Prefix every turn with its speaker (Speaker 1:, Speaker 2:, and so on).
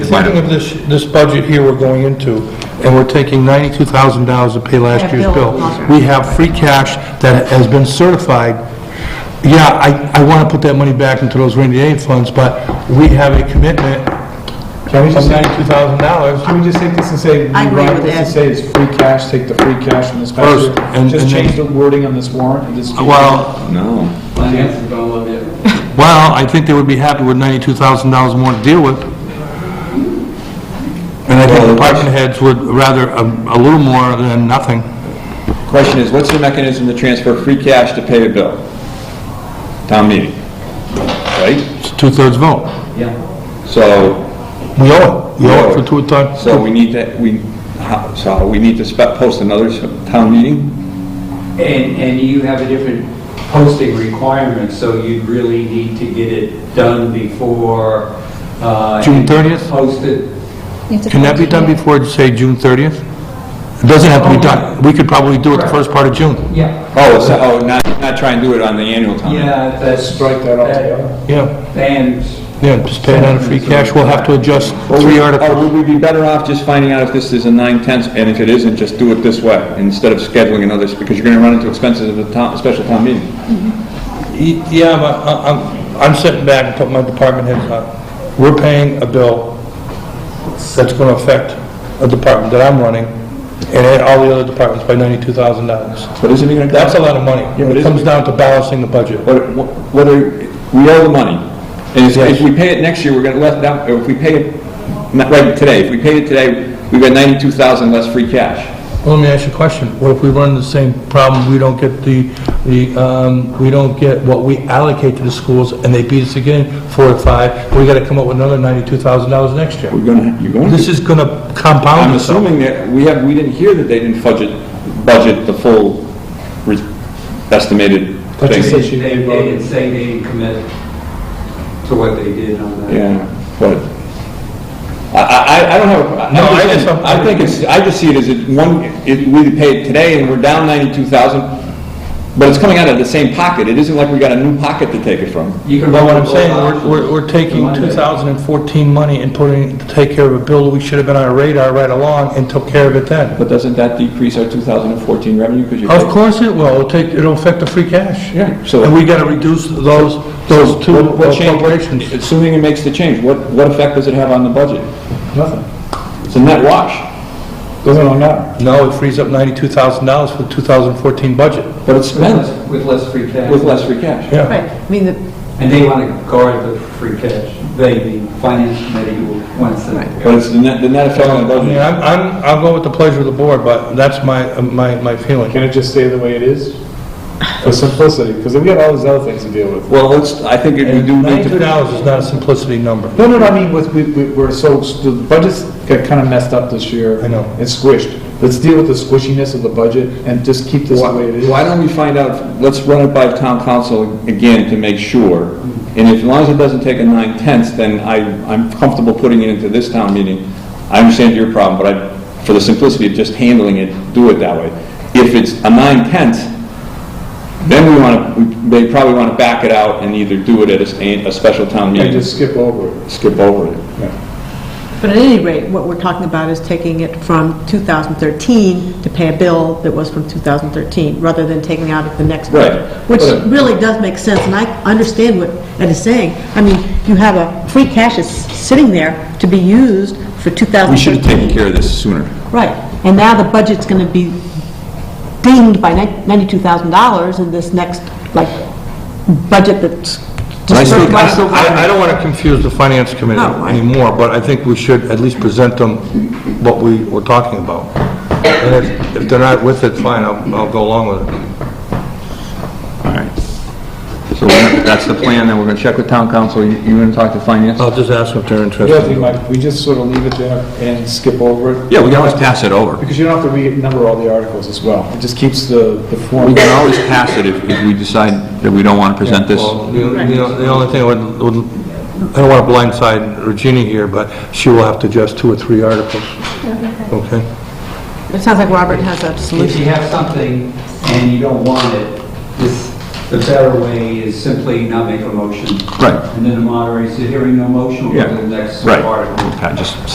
Speaker 1: beginning of this, this budget here we're going into, and we're taking ninety-two thousand dollars to pay last
Speaker 2: That
Speaker 1: year's bill.
Speaker 2: bill.
Speaker 1: We have free cash that has been certified. Yeah, I, I wanna put that money back into those rainy day funds, but we have a commitment
Speaker 3: Can we
Speaker 1: of
Speaker 3: just say,
Speaker 1: ninety-two thousand dollars.
Speaker 3: can we just take this and say,
Speaker 2: I agree
Speaker 3: rewrite
Speaker 2: with
Speaker 3: this
Speaker 2: Ed.
Speaker 3: and say it's free cash, take the free cash from this budget?
Speaker 1: First, and-
Speaker 3: Just
Speaker 1: and then-
Speaker 3: change the wording on this warrant and just. keep-
Speaker 1: Well,
Speaker 4: No.
Speaker 5: Finances don't love it.
Speaker 1: well, I think they would be happy with ninety-two thousand dollars more to deal with. And I think department heads would rather a, a little more than nothing.
Speaker 4: Question is, what's the mechanism to transfer free cash to pay a bill? Town meeting, right?
Speaker 1: It's a two-thirds vote.
Speaker 5: Yeah.
Speaker 4: So,
Speaker 1: We owe it. We owe it for two-thirds.
Speaker 4: so we need to, we, how- so we need to spe- post another s- town meeting?
Speaker 5: And, and you have a different posting requirement, so you'd really need to get it done before, uh...
Speaker 1: June 30th?
Speaker 5: Posted.
Speaker 1: Can that be done before, say, June 30th? It doesn't have to be done. We could probably do it the first part of June.
Speaker 5: Yeah.
Speaker 4: Oh, so, oh, not, not try and do it on the annual town? meeting.
Speaker 5: Yeah, that's...
Speaker 3: Strike that altogether.
Speaker 1: Yeah,
Speaker 5: And,
Speaker 1: yeah, just pay it out of free cash. We'll have to adjust
Speaker 4: Or
Speaker 1: three
Speaker 4: we-
Speaker 1: articles.
Speaker 4: Or Oh, would we be better off just finding out if this is a nine-tenths, and if it isn't, just do it this way, instead of scheduling another, s- because you're gonna run into expenses of a town, special town meeting.
Speaker 1: Y- Yeah, but I- I'm, I'm sitting back and putting my department heads on. We're paying a bill that's going to affect a department that I'm running and all the other departments by $92,000.
Speaker 4: But isn't it gonna?
Speaker 1: That's a lot of money.
Speaker 4: Yeah, but
Speaker 1: It
Speaker 4: isn't-
Speaker 1: comes down to balancing the budget.
Speaker 4: What- what- whether, we owe the money. And if- if we pay it next year, we're gonna let that, or if we pay it, not right today, if we pay it today, we've got ninety-two thousand less free cash.
Speaker 1: Well, let me ask you a question. What if we run the same problem, we don't get the, the, um, we don't get what we allocate to the schools, and they beat us again, four to five, we gotta come up with another ninety-two thousand dollars next year?
Speaker 4: We're gonna, you're gonna.
Speaker 1: This is gonna compound
Speaker 4: I'm
Speaker 1: itself.
Speaker 4: assuming that, we have, we didn't hear that they didn't budget, budget the full re- estimated
Speaker 3: But you
Speaker 4: thing.
Speaker 3: said
Speaker 5: they,
Speaker 3: she
Speaker 5: they
Speaker 3: didn't
Speaker 5: didn't
Speaker 3: vote.
Speaker 5: say they didn't commit to what they did on that.
Speaker 4: Yeah, but, I, I, I don't have, a-
Speaker 1: No, I
Speaker 4: I'm just
Speaker 1: just-
Speaker 4: saying, I think it's, I just see it as it one, it, we paid today and we're down ninety-two thousand, but it's coming out of the same pocket, it isn't like we got a new pocket to take it from.
Speaker 5: You can
Speaker 1: But
Speaker 5: run
Speaker 1: what I'm
Speaker 5: both
Speaker 1: saying,
Speaker 5: options.
Speaker 1: we're, we're, we're taking two thousand and fourteen money and putting, to take care of a bill that we should have been on our radar right along and took care of it then.
Speaker 4: But doesn't that decrease our two thousand and fourteen revenue, because you're.
Speaker 1: Of course it will, it'll take, it'll affect the free cash.
Speaker 4: Yeah, so-
Speaker 1: And we gotta reduce those, those two
Speaker 4: What- what change-
Speaker 1: appropriations.
Speaker 4: Assuming it makes the change, what, what effect does it have on the budget?
Speaker 3: Nothing.
Speaker 4: It's a net wash.
Speaker 3: Doesn't all matter.
Speaker 1: No, it frees up ninety-two thousand dollars for the two thousand fourteen budget.
Speaker 4: But it's
Speaker 5: With
Speaker 4: spent
Speaker 5: less- With less free cash.
Speaker 4: with less free cash.
Speaker 1: Yeah.
Speaker 2: Right, I mean, the-
Speaker 5: And they want to guard the free cash. They, the finance committee will- wants to.
Speaker 4: But it's the net, the net effect on the
Speaker 1: I mean,
Speaker 4: budget.
Speaker 1: I'm, I'm, I'll go with the pleasure of the board, but that's my, uh, my, my feeling.
Speaker 3: Can it just stay the way it is? For simplicity, because we got all these other things to deal with.
Speaker 4: Well, let's, I think it- we do need
Speaker 1: Ninety-two
Speaker 4: to.
Speaker 1: dollars is not a simplicity number.
Speaker 3: No, no, no, I mean, with, we, we- we're so, the budgets got kind of messed up this year.
Speaker 1: I know.
Speaker 3: It's squished. Let's deal with the squishiness of the budget and just keep this the way it is.
Speaker 4: Why don't we find out, let's run it by town council again to make sure. And if- as long as it doesn't take a nine tenths, then I, I'm comfortable putting it into this town meeting. I understand your problem, but I, for the simplicity of just handling it, do it that way. If it's a nine tenths, then we want to, they probably want to back it out and either do it at a s- a, a special town
Speaker 3: And
Speaker 4: meeting,
Speaker 3: just skip over it.
Speaker 4: skip over it.
Speaker 2: but at any rate, what we're talking about is taking it from 2013 to pay a bill that was from 2013, rather than taking out of the next
Speaker 4: Right.
Speaker 2: budget.
Speaker 4: uh,
Speaker 2: Which
Speaker 4: Right.
Speaker 2: really does make sense, and I understand what Ed is saying. I mean, you have a, free cash is sitting there to be used for 2013.
Speaker 4: We should have taken care of this sooner.
Speaker 2: Right, and now the budget's going to be dinged by ni- $92,000 in this next, like, budget that's...
Speaker 4: I still-
Speaker 2: dispersed
Speaker 4: I
Speaker 2: right-
Speaker 4: still-
Speaker 1: I, I don't wanna confuse the finance committee
Speaker 2: No, I-
Speaker 1: anymore, but I think we should at least present them what we were talking about. And if- if they're not with it, fine, I'll, I'll go along with it.
Speaker 4: All right. So we're- that's the plan, then we're going to check with town council, You- you're going to talk to finance?
Speaker 1: I'll just ask them if they're
Speaker 3: The other thing,
Speaker 1: interested.
Speaker 3: Mike, we just sort of leave it there and skip over it.
Speaker 4: Yeah, we can always pass it over.
Speaker 3: Because you don't have to renumber all the articles as well. It just keeps the, the
Speaker 4: We
Speaker 3: form.
Speaker 4: can always pass it if if we decide that we don't want to present this.
Speaker 1: Well, the, the the only thing I would, would, I don't wanna blindside Regina here, but she will have to adjust two or three articles. Okay?
Speaker 2: It sounds like Robert has a
Speaker 5: If
Speaker 2: solution.
Speaker 5: you have something and you don't want it, just the better way is simply not make a motion.
Speaker 4: Right.
Speaker 5: And then the moderator says, hearing no motion, we'll go to the next
Speaker 4: Right.
Speaker 5: article.
Speaker 4: I just